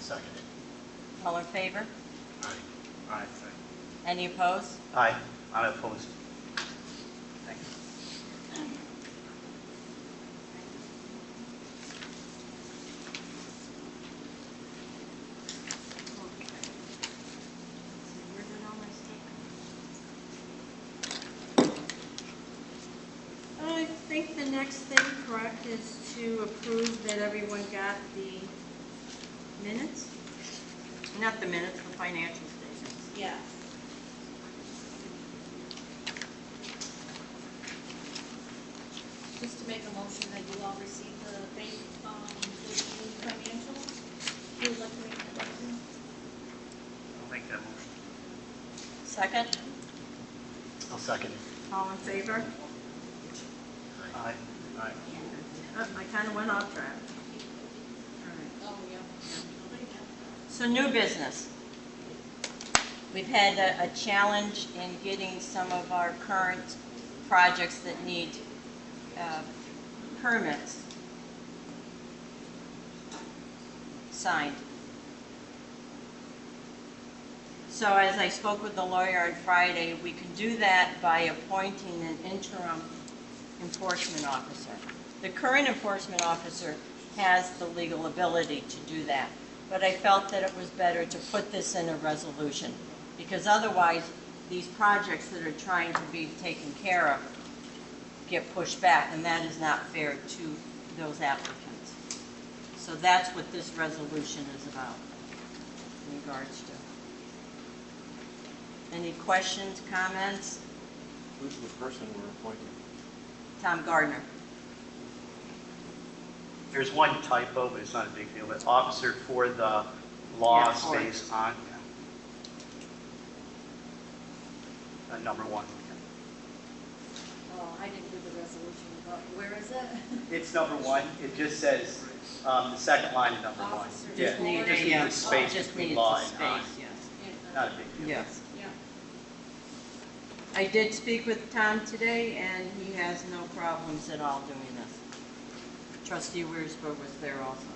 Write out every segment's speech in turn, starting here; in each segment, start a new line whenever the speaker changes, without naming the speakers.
Seconded.
All in favor?
Aye.
Aye.
Any opposed?
Aye, I'm opposed. Thank you.
Where did all my stuff go? I think the next thing, correct, is to approve that everyone got the minutes? Not the minutes, the financial statements.
Yeah.
Just to make a motion that you all receive the bank, um, the financial, you would like to make that motion?
I'll make that motion.
Second?
I'll second it.
All in favor?
Aye.
Aye.
Uh, I kind of went off track.
Oh, yeah. Nobody got
So new business. We've had a, a challenge in getting some of our current projects that need uh, permits signed. So as I spoke with the lawyer on Friday, we can do that by appointing an interim enforcement officer. The current enforcement officer has the legal ability to do that, but I felt that it was better to put this in a resolution, because otherwise, these projects that are trying to be taken care of get pushed back, and that is not fair to those applicants. So that's what this resolution is about in regards to. Any questions, comments?
Who's the person we're appointing?
Tom Gardner.
There's one typo, but it's not a big deal, but officer for the law
Yeah, for it.
stays on. Uh, Number one.
Oh, I didn't do the resolution, but where is it?
It's number one, it just says, um, the second line of number one.
Officer.
Yeah,
Just need
it just
a,
needs
yeah,
a space
Just needs
between
a
law and aye.
space, yes.
Not a big deal.
Yes.
Yeah.
I did speak with Tom today, and he has no problems at all doing this. Trustee Weersberg was there also.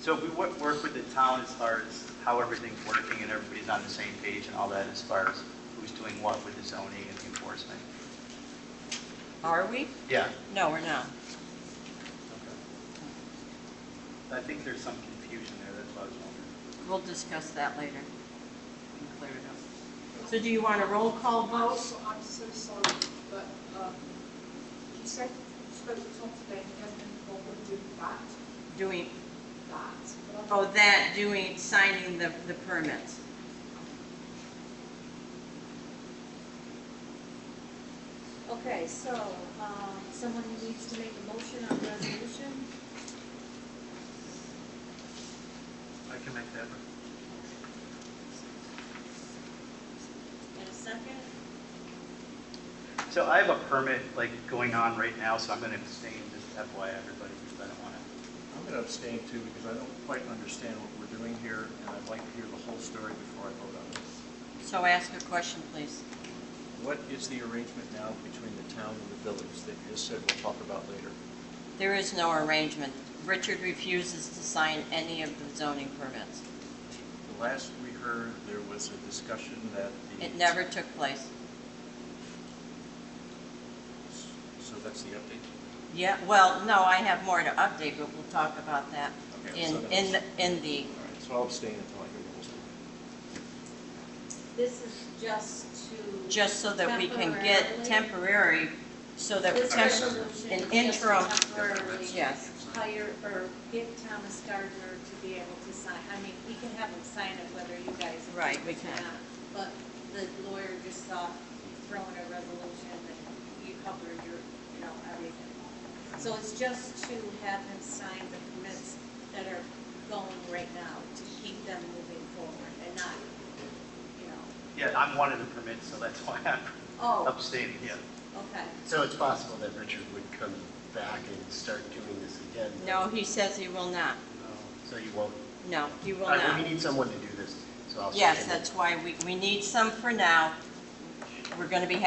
So if we wo- work with the town as far as how everything's working and everybody's on the same page and all that as far as who's doing what with the zoning and the enforcement.
Are we?
Yeah.
No, we're not.
I think there's some confusion there, that's why I was wondering.
We'll discuss that later. and Clear it up. So do you want a roll call
I'm
vote?
so, I'm so sorry, but, um, you said, you spoke to Tom today, and he hasn't been involved with doing that,
Doing,
that, but I'm
oh, that, doing, signing the, the permits.
Okay, so, um, someone needs to make a motion on the resolution?
I can make that.
In a second?
So I have a permit like going on right now, so I'm going to abstain, just FYI everybody, because I don't want to.
I'm going to abstain too because I don't quite understand what we're doing here and I'd like to hear the whole story before I vote on this.
So ask a question, please.
What is the arrangement now between the town and the village that you just said we'll talk about later?
There is no arrangement. Richard refuses to sign any of the zoning permits.
The last we heard, there was a discussion that the.
It never took place.
So that's the update?
Yeah, well, no, I have more to update, but we'll talk about that
Okay,
in,
so that's-
in, the in the,
All right, so I'll abstain until I hear the whole story.
This is just to.
just so that we can get
temporarily-
temporary, so that
This
temp-
resolution
an
is just
interim-
Temporarily.
Yes.
Hire or get Thomas Gardner to be able to sign, I mean, we can have him sign it whether you guys. approve
Right, we
it or
can.
not, But the lawyer just saw throwing a resolution that you cover your, you know, everything. So it's just to have him sign the permits that are going right now to keep them moving forward and not, you know,
Yeah, I'm one of the permits, so that's why I'm
oh,
abstaining, yeah.
okay.
So it's possible that Richard would come back and start doing this again?
no, he says he will not.
So you won't?
No, he will
All right, well,
not.
We need someone to do this, so I'll second
Yes,
it.
that's why we, we need some for now. We're gonna be